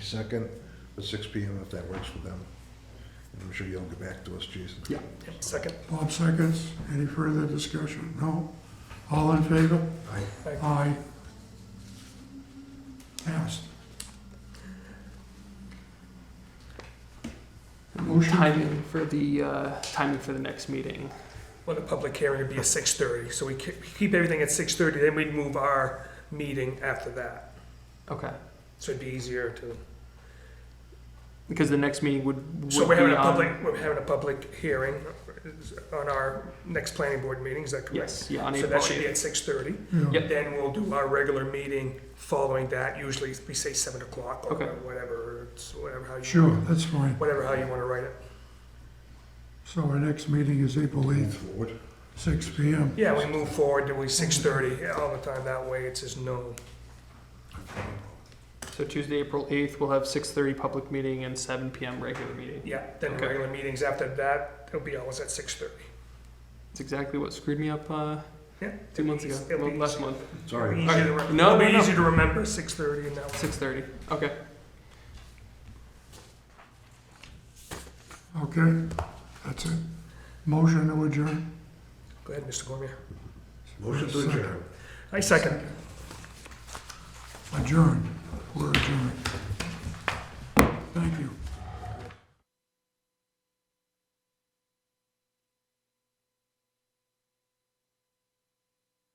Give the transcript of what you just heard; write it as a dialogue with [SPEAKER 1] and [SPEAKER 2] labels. [SPEAKER 1] 22nd at six PM if that works for them. And I'm sure you'll get back to us, Jason.
[SPEAKER 2] Yeah. Second.
[SPEAKER 3] Bob seconds. Any further discussion? No? All in favor?
[SPEAKER 1] Aye.
[SPEAKER 3] Aye. Passed. Motion?
[SPEAKER 4] Timing for the, uh, timing for the next meeting.
[SPEAKER 2] Well, the public hearing would be at six thirty, so we ke- we keep everything at six thirty, then we'd move our meeting after that.
[SPEAKER 4] Okay,
[SPEAKER 2] So it'd be easier to,
[SPEAKER 4] because the next meeting would, would um,
[SPEAKER 2] so we're having
[SPEAKER 4] be
[SPEAKER 2] a
[SPEAKER 4] on-
[SPEAKER 2] public, we're having a public hearing on our next planning board meeting, is that correct?
[SPEAKER 4] Yes, yeah, on
[SPEAKER 2] So
[SPEAKER 4] April
[SPEAKER 2] that should be
[SPEAKER 4] 8th.
[SPEAKER 2] at six thirty.
[SPEAKER 3] Yeah.
[SPEAKER 4] Yep.
[SPEAKER 2] Then we'll do our regular meeting following that, usually we say seven o'clock or
[SPEAKER 4] Okay.
[SPEAKER 2] whatever, or it's whatever, how you.
[SPEAKER 3] Sure, that's fine.
[SPEAKER 2] Whatever, how you wanna write it.
[SPEAKER 3] So our next meeting is April
[SPEAKER 1] Move
[SPEAKER 3] 8th,
[SPEAKER 1] forward.
[SPEAKER 3] six PM.
[SPEAKER 2] Yeah, we move forward to we six thirty all the time, that way it's just known.
[SPEAKER 4] So Tuesday, April eighth, we'll have six thirty public meeting and seven PM regular meeting.
[SPEAKER 2] Yeah, then
[SPEAKER 4] Okay.
[SPEAKER 2] regular meetings after that, it'll be always at six thirty.
[SPEAKER 4] It's exactly what screwed me up, uh,
[SPEAKER 2] Yeah.
[SPEAKER 4] two months ago,
[SPEAKER 2] It'll be
[SPEAKER 4] well, last
[SPEAKER 2] easy.
[SPEAKER 4] month,
[SPEAKER 1] Sorry.
[SPEAKER 2] Easy to re-
[SPEAKER 4] No,
[SPEAKER 2] it'll be
[SPEAKER 4] no, no.
[SPEAKER 2] easy to remember, six thirty and that
[SPEAKER 4] six thirty, okay.
[SPEAKER 3] Okay, that's it. Motion to adjourn.
[SPEAKER 2] Go ahead, Mr. Cormier.
[SPEAKER 1] Motion to adjourn.
[SPEAKER 2] I second.
[SPEAKER 3] Adjourn. We're adjourned.